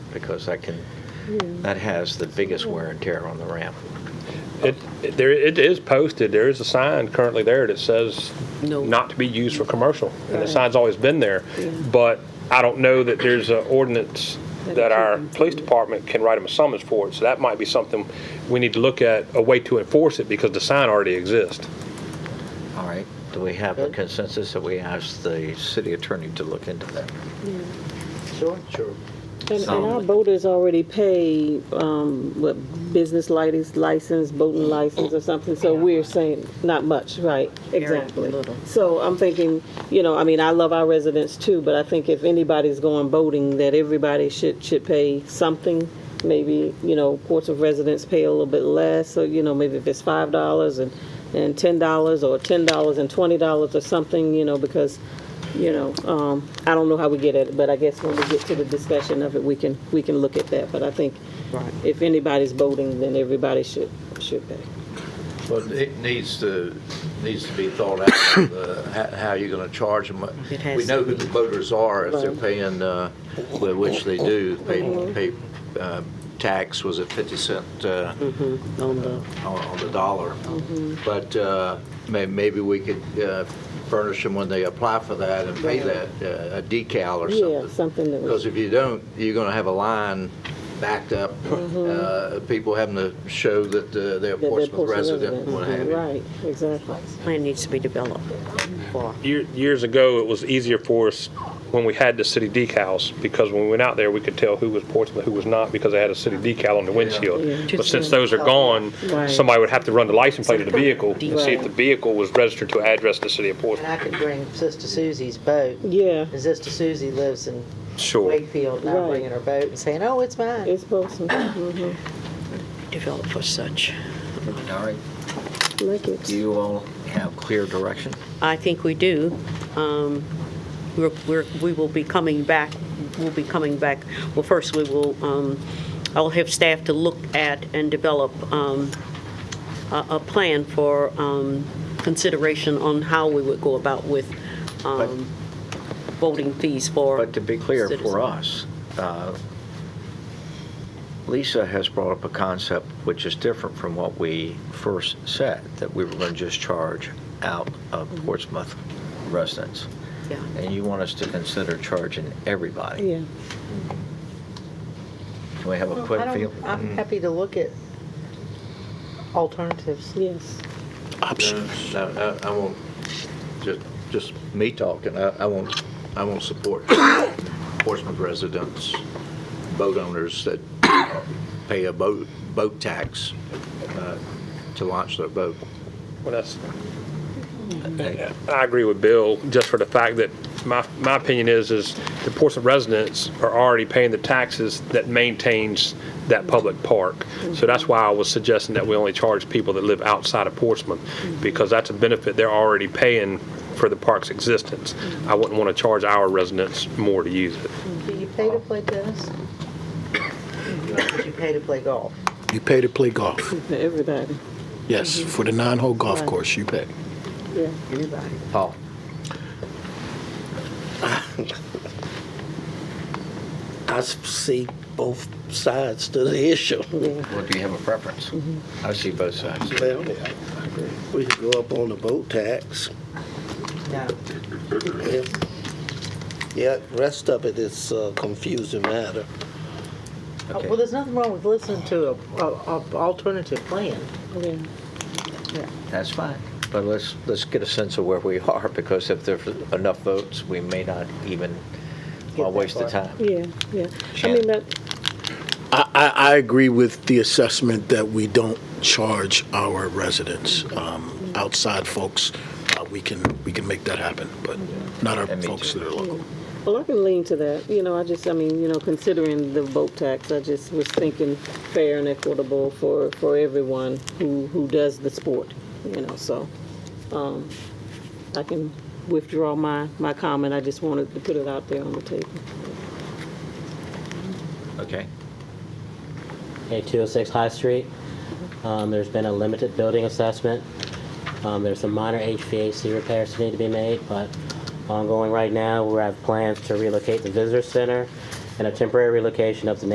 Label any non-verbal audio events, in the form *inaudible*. because that can, that has the biggest wear and tear on the ramp. It, it- there, it is posted, there is a sign currently there that says No. not to be used for commercial, and the Right. sign's always been there. But I don't know that there's an ordinance That that you our can- police department can write them a summons for it, so that might be something we need to look at, a way to enforce it, because the sign already exists. All right, do we have a consensus that we ask the city attorney to look into that? Sure. Sure. And, and our boaters already pay, um, what, business license, license, boating license or something, so we're saying, not much, right? Exactly. little. So I'm thinking, you know, I mean, I love our residents too, but I think if anybody's going boating, that everybody should, should pay something. Maybe, you know, ports of residents pay a little bit less, so, you know, maybe if it's five dollars and, and ten dollars, or ten dollars and twenty dollars or something, you know, because you know, um, I don't know how we get at it, but I guess when we get to the discussion of it, we can, we can look at that. But I think if anybody's voting, then everybody should, should pay. But it needs to, needs to be thought out, *coughs* uh, ho- how you're going to charge them. It has We know who the voters are, if they're Right. paying, uh, well, which they do, pay, pay uh, tax, was it 50 cent uh, Mm-hmm. On the, Mm-hmm. on on the dollar? But uh, may- maybe we could uh, furnish them when they apply for that and pay that, uh, a decal or yeah, something. something that was, Because if you don't, you're going to have a line backed up, uh, people having to show that uh, they're a that they're Portsmouth Portsmouth resident, residents. what have you. Right, exactly. Plan needs to be developed for. Year- Years ago, it was easier for us when we had the city decals, because when we went out there, we could tell who was Portsmouth, who was not, because they had a city decal on the windshield. But since those are gone, Right. somebody would have to run the license plate of the vehicle and see if Right. the vehicle was registered to an address in the city of And Portsmouth. I could bring Sister Susie's boat. Yeah, And Sister Susie lives in Sure. Wakefield, and I'm Right. bringing her boat and saying, oh, it's mine. it's Portsmouth. Mhm. Develop for such. All right, Like it. do you all have clear direction? I think we do. Um, We're, we're, we will be coming back, we'll be coming back, well, first, we will, um, I'll have staff to look at and develop um, a, a plan for um, consideration on how we would go about with um, voting fees for. But to be clear, citizens. for us, uh, Lisa has brought up a concept which is different from what we first said, that we were going to just charge out of Portsmouth residents. Yeah. And you want us to consider charging everybody. Yeah, Can we have a quick feel? I'm happy to look at alternatives. yes. No, no, I I won't, just, just me talking, I I won't, I won't support *coughs* Portsmouth residents, boat owners that *coughs* pay a boat, boat tax uh, to launch their boat. Well, that's- Okay. I agree with Bill, just for the fact that my, my opinion is, is the Portsmouth residents are already paying the taxes that maintains that public park. So that's why I was suggesting that we only charge people that live outside of Portsmouth, because that's a benefit they're already paying for the park's existence. I wouldn't want to charge our residents more to use it. Do you pay to play tennis? Do you pay to play golf? You pay to play golf. *laughs* For everybody, Yes, for the nine-hole golf course, you pay. yeah. Everybody. Paul? I s- see both sides to the *laughs* issue. Well, do you have a preference? Mm-hmm. I see both sides. Well, we could go up on the boat tax. No. Yeah. Yeah, rest of it is a confusing matter. Oh, Well, there's nothing wrong with listening to a, a, a alternative plan. Yeah. That's fine. But let's, let's get a sense of where we *laughs* are, because if there's enough votes, we may not even Get uh, that waste the far. time. Yeah, yeah. I Shannon. mean, that, I, I, I agree with the assessment that we don't charge our residents. Um, outside folks, uh, we can, we can make that happen, but not our Yeah, me folks too. that are local. Well, I can lean to that. You know, I just, I mean, you know, considering the boat tax, I just was thinking fair and equitable for, for everyone who, who does the sport, you know, so. um, I can withdraw my, my comment. I just wanted to put it out there on the table. Okay. Okay, 206 High Street. Um, There's been a limited building assessment. Um, There's some minor HVAC repairs that need to be made, but ongoing right now, we have plans to relocate the visitor center and a temporary relocation of the